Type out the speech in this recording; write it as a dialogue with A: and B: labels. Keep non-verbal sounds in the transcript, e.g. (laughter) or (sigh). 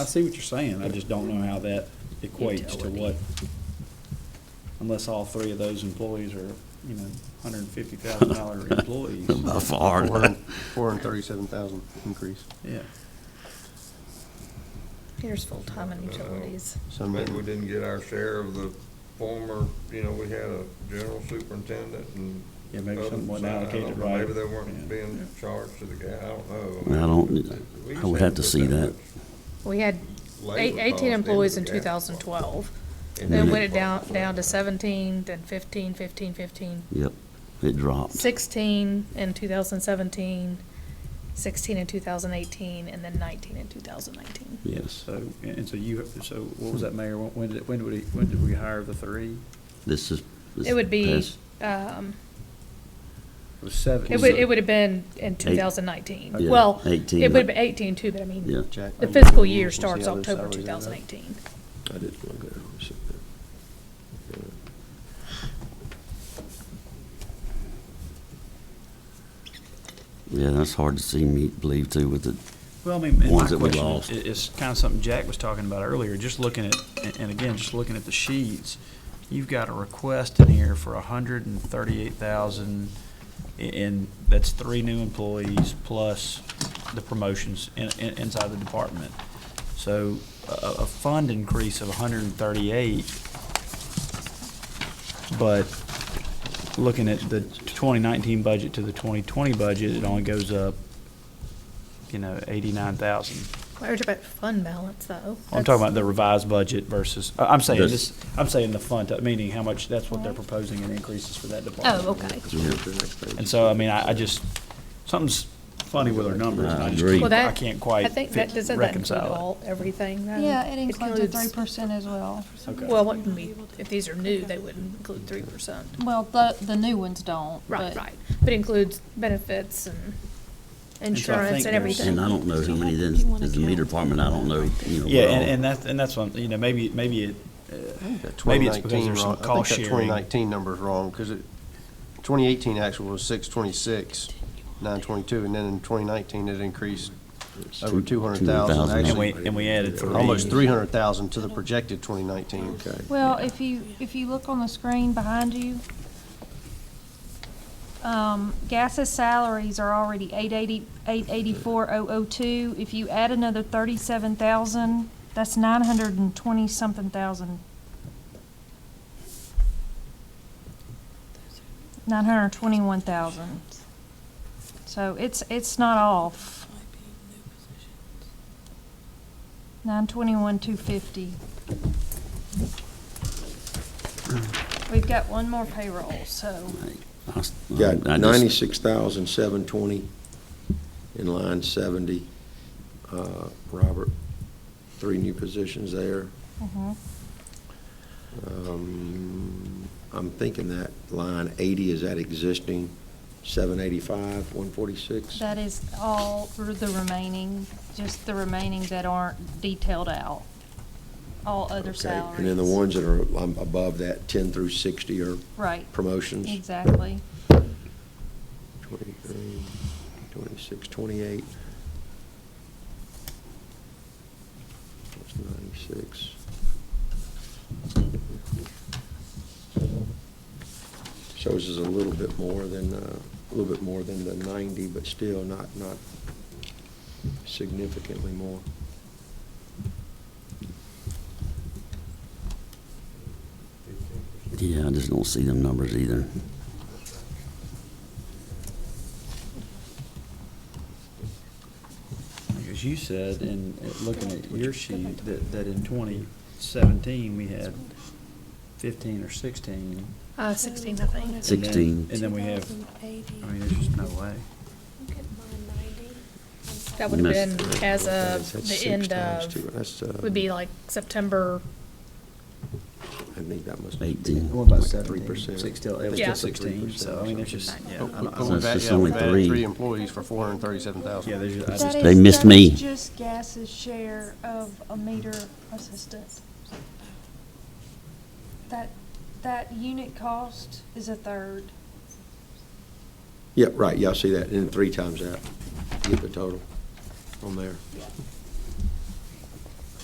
A: I see what you're saying, I just don't know how that equates to
B: Utility.
A: what, unless all three of those employees are, you know, hundred and fifty thousand
C: (laughs)
A: dollar employees,
D: By far.
E: Four hundred, four hundred thirty-seven thousand increase.
A: yeah.
B: Here's full-time
C: Uh,
B: and utilities.
E: So
C: But
E: maybe-
C: we didn't get our share of the former, you know, we had a general superintendent and.
A: Yeah, maybe something wasn't
C: others. I don't
A: allocated
C: know.
A: right.
C: Maybe
A: Yeah.
C: they weren't being charged to the guy, I don't know.
D: I don't,
C: We
D: I
C: just
D: would have
C: haven't
D: to
C: put
D: see that.
B: We had
C: much
B: eight-
C: labor cost
B: eighteen
C: into
B: employees in
C: the
B: two
C: gas
B: thousand
C: plant.
B: twelve.
C: Into
B: Then
C: the
B: went it
C: gas
B: down,
C: plant.
B: down to seventeen, then fifteen, fifteen, fifteen.
D: Yep, it dropped.
B: Sixteen in two thousand seventeen, sixteen in two thousand eighteen, and then nineteen in two thousand nineteen.
D: Yes,
A: So, and and so you, so what was that, Mayor, when when did, when would, he- when did we hire the three?
D: this is. this
B: It would be,
D: past-
B: um,
A: It was seven.
B: it would, it would have been in two
D: Eight-
B: thousand nineteen.
D: yeah,
B: Well, it
D: 18,
B: would have
D: but-
B: been eighteen too, but I mean,
D: Yeah.
E: Jack,
B: the
E: I-
B: fiscal year
E: we'll see how
B: starts
E: those
B: October
E: salaries
B: two
E: end up.
B: thousand eighteen.
F: I did look at it, let me see there. Yeah.
D: Yeah, that's hard to see me believe too with the,
A: Well, I mean, and my
D: ones that we
A: question
D: lost.
A: i- is kind of something Jack was talking about earlier, just looking at, and- and again, just looking at the sheets, you've got a request in here for a hundred and thirty-eight thousand, and that's three new employees plus the promotions in, in, inside the department. So a, a a fund increase of a hundred and thirty-eight, but looking at the twenty nineteen budget to the twenty twenty budget, it only goes up you know, eighty-nine thousand.
B: Why are you talking about fund balance though?
A: I'm
B: That's-
A: talking about the revised budget versus, I- I'm saying
D: This-
A: this, I'm saying the fund, uh, meaning how much, that's what they're proposing in increases for that department.
B: Oh, okay.
F: Let's move to the next page.
A: And so, I mean, I, I just, something's funny with our numbers, and I just,
D: I agree.
A: can't-
B: Well,
A: I
B: that-
A: can't quite
B: I think that,
A: fit-
B: doesn't that include
A: reconcile
B: all, everything then?
G: Yeah, it includes a three percent as well.
A: Okay.
B: Well, it wouldn't be, if these are new, they wouldn't include three percent.
G: Well, the, the new ones don't,
B: Right,
G: but.
B: right, but includes benefits and
A: so I
B: insurance
A: think
B: and
A: there's-
B: everything.
D: and I don't know how many then is the meter department, I don't know, you know.
A: it. Yeah,
D: what
A: and,
D: all.
A: and that's, and that's one, you know, maybe, maybe it, uh,
E: I think that
A: Maybe it's because
E: 2019
A: there's some
E: wrong-
A: cost
E: I think
A: sharing.
E: that twenty nineteen number's wrong, because it, twenty eighteen actual was six twenty-six, nine twenty-two, and then in twenty nineteen, it increased
D: It's
E: over
D: two-
E: two hundred thousand,
D: 200,000.
A: and
E: actually,
A: we, and we added three.
E: almost three hundred thousand to the projected twenty nineteen.
F: Okay.
G: Well, if you, if you look on the screen behind you, um, Gas's salaries are already eight eighty, eight eighty-four oh oh two. If you add another thirty-seven thousand, that's nine hundred and twenty-something thousand. Nine hundred and twenty-one thousand. So it's, it's not off. Nine twenty-one, two fifty. We've got one more payroll, so.
D: I s- I- I
F: Got
D: just-
F: ninety-six thousand, seven twenty in line seventy. Uh, Robert, three new positions there.
G: mhm.
F: Um, I'm thinking that line eighty is that existing, seven eighty-five, one forty-six?
G: That is all r- the remaining, just the remaining that aren't detailed out. All other salaries.
F: And then the ones that are um, above that, ten through sixty are
G: Right,
F: promotions?
G: exactly.
F: 23, 26, 28. That's 96. Shows us a little bit more than, uh, a little bit more than the 90, but still not, not significantly more.
D: Yeah, I just don't see them numbers either.
A: As you said, and uh, looking at your sheet, that, that in twenty seventeen, we had fifteen or sixteen.
B: Uh, sixteen, I think.
D: Six- 16.
A: And then we have, I mean, there's just no way.
B: That would have been
D: Miss-
B: as of
F: That's- that's
B: the
F: six
B: end
F: times two.
B: of,
F: That's, uh,
B: would be like September,
F: I think that must.
D: Eighteen.
A: What about
F: Like
A: seventeen?
F: 3%.
A: Six, still, it was
B: Yeah.
A: just sixteen, so, I mean, it's just, oh, yeah. I
E: But
A: don't-
E: but
D: Oh, So
E: we've
D: it's
E: added,
D: just
E: yeah,
D: only
E: we've added
D: three.
E: three employees for four hundred thirty-seven
A: Yeah,
E: thousand.
A: there's, ju- I
G: That
A: just,
G: is-
D: They missed me.
G: That is just Gas's share of a meter assistant. That, that unit cost is a third.
F: Yeah, right, yeah, I see that, and then three times that, get the total on there.